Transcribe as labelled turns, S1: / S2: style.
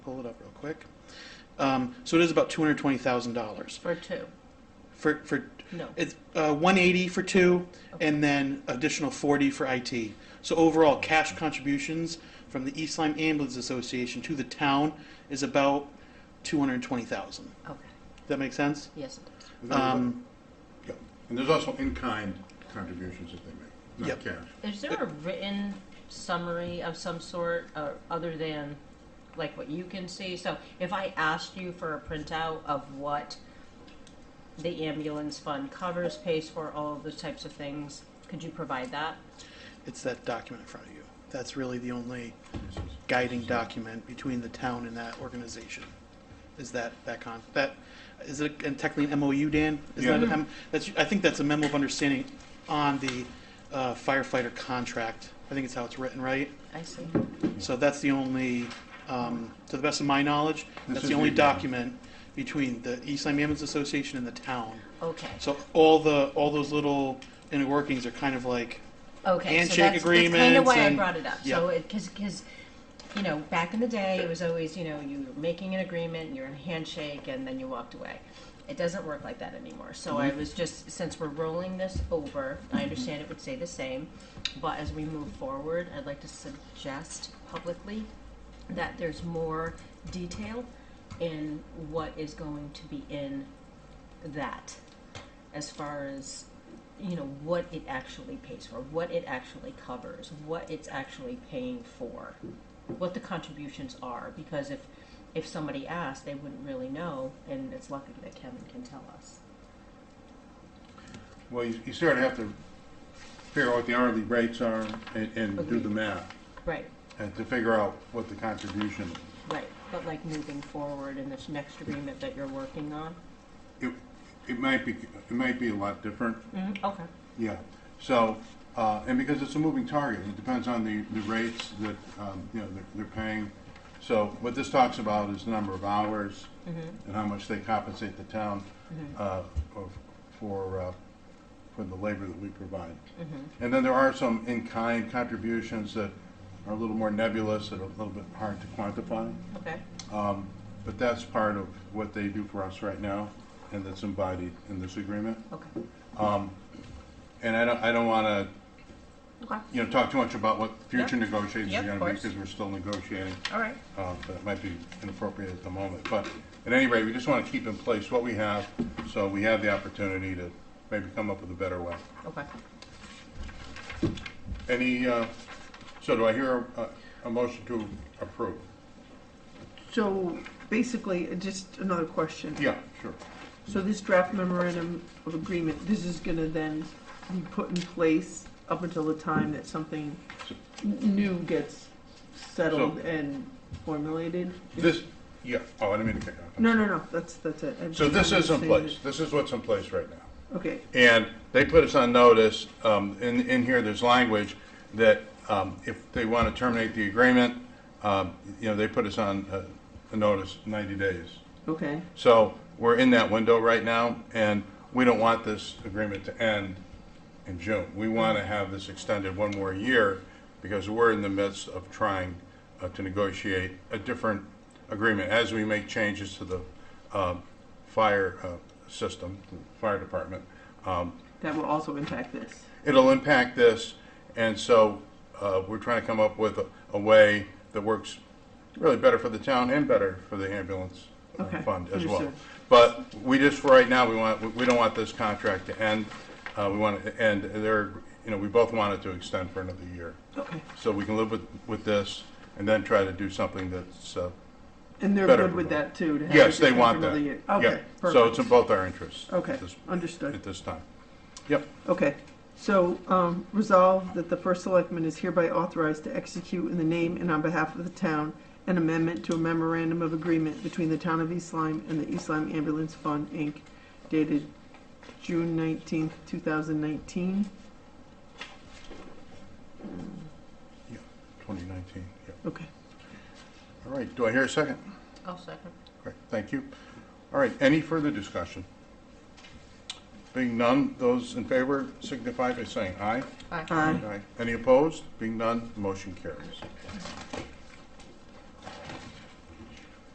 S1: quick. Um, so it is about two hundred twenty thousand dollars
S2: for two?
S1: for for
S2: No.
S1: it's uh, one eighty for two, and then additional forty for IT. So overall, cash contributions from the East Lyme Ambulance Association to the town is about two hundred twenty thousand.
S2: Okay,
S1: That make sense?
S2: yes, it does.
S3: And there's-
S1: Um,
S3: yeah. And there's also in-kind contributions that they make, not
S1: Yep.
S3: cash.
S2: Is there a written summary of some sort, or other than like what you can see? So if I asked you for a printout of what the ambulance fund covers, pays for, all of those types of things, could you provide that?
S1: it's that document in front of you. That's really the only
S3: This is-
S1: guiding document between the town and that organization. Is that that con that is it and technically an MOU, Dan? Is that
S3: Yeah.
S1: a, that's I think that's a memo of understanding on the uh, firefighter contract. I think it's how it's written, right?
S2: I see.
S1: So that's the only, um, to the best of my knowledge,
S3: This
S1: that's
S3: is
S1: the only
S3: the agreement.
S1: document between the East Lyme Ambulance Association and the town.
S2: Okay,
S1: So all the all those little inner workings are kind of like
S2: okay.
S1: Handshake
S2: so that's, That's kind of
S1: agreements
S2: why I
S1: and-
S2: brought it up. So
S1: yeah.
S2: it because you know back in the day it was always you know you were making an agreement, you're in a handshake, and then you walked away. It doesn't work like that anymore. So
S1: Mm-hmm.
S2: I was just since we're rolling this over, I understand it would stay the same, but as we move forward, I'd like to suggest publicly that there's more detail in what is going to be in that as far as you know what it actually pays for what it actually covers what it's actually paying for what the contributions are because if if somebody asked they wouldn't really know and it's lucky that kevin can tell us
S3: Well, you, you sort of have to figure out what the hourly rates are and, and do
S2: Agreed.
S3: the math
S2: right
S3: and to figure out what the contribution is.
S2: right but like moving forward in this next agreement that you're working on
S3: It, it might be, it might be a lot different,
S2: mm-hmm. okay
S3: yeah. So, uh, and because it's a moving target, it depends on the, the rates that, um, you know, they're, they're paying. So what this talks about is the number of hours and how much they compensate the town, uh, of- for, uh, for the labor that we provide. And then there are some in-kind contributions that are a little more nebulous, that are a little bit hard to quantify.
S2: okay
S3: Um, But that's part of what they do for us right now, and that's embodied in this agreement.
S2: okay
S3: And I don't, I don't want to,
S2: okay
S3: you know, talk too much about what future
S2: Yeah.
S3: negotiations
S2: Yeah,
S3: are
S2: of
S3: going to be,
S2: course.
S3: because we're still negotiating,
S2: all right
S3: uh, but it might be inappropriate at the moment. But at any rate, we just want to keep in place what we have, so we have the opportunity to maybe come up with a better way.
S2: okay
S3: Any, uh, so do I hear a- a motion to approve?
S4: So basically, uh, just another question.
S3: Yeah, sure.
S4: So this draft memorandum of agreement, this is gonna then be put in place up until the time that something n- new gets settled
S3: So-
S4: and formulated?
S3: This, yeah, oh, I didn't mean to kick off.
S4: No, no, no, that's, that's it. I'm
S3: So this
S4: just
S3: is in
S4: understanding
S3: place, this is what's in place right now.
S4: it. Okay,
S3: And they put us on notice, um, in, in here, there's language that, um, if they want to terminate the agreement, um, you know, they put us on, uh, a notice ninety days.
S4: okay,
S3: So we're in that window right now, and we don't want this agreement to end in June. We want to have this extended one more year because we're in the midst of trying uh, to negotiate a different agreement as we make changes to the um, fire uh, system, the fire department. Um,
S4: that will also impact this.
S3: It'll impact this, and so uh, we're trying to come up with a- a way that works really better for the town and better for the ambulance uh,
S4: Okay,
S3: fund as well.
S4: understood.
S3: But we just, for right now, we want, we- we don't want this contract to end. Uh, We want it to end, there, you know, we both want it to extend for another year.
S4: Okay,
S3: So we can live with, with this and then try to do something that's, uh,
S4: and they're
S3: Better
S4: good with
S3: promote.
S4: that too? to have
S3: yes,
S4: it
S3: they
S4: just
S3: want
S4: for another
S3: that.
S4: year?
S3: Yeah.
S4: Okay,
S3: So it's
S4: perfect.
S3: in both our interests. at
S4: Okay,
S3: this-
S4: understood.
S3: At this time. Yep.
S4: Okay, so um, resolve that the first selectman is hereby authorized to execute in the name and on behalf of the town an amendment to a memorandum of agreement between the town of East Lyme and the East Lyme Ambulance Fund, Inc., dated June nineteenth, two thousand nineteen.
S3: 2019, yep.
S4: Okay,
S3: All right, do I hear a second?
S2: i'll second
S3: Great, thank you. All right, any further discussion? Being none, those in favor signify by saying aye.
S2: Aye.
S4: Aye.
S3: Any opposed? Being none, motion carries.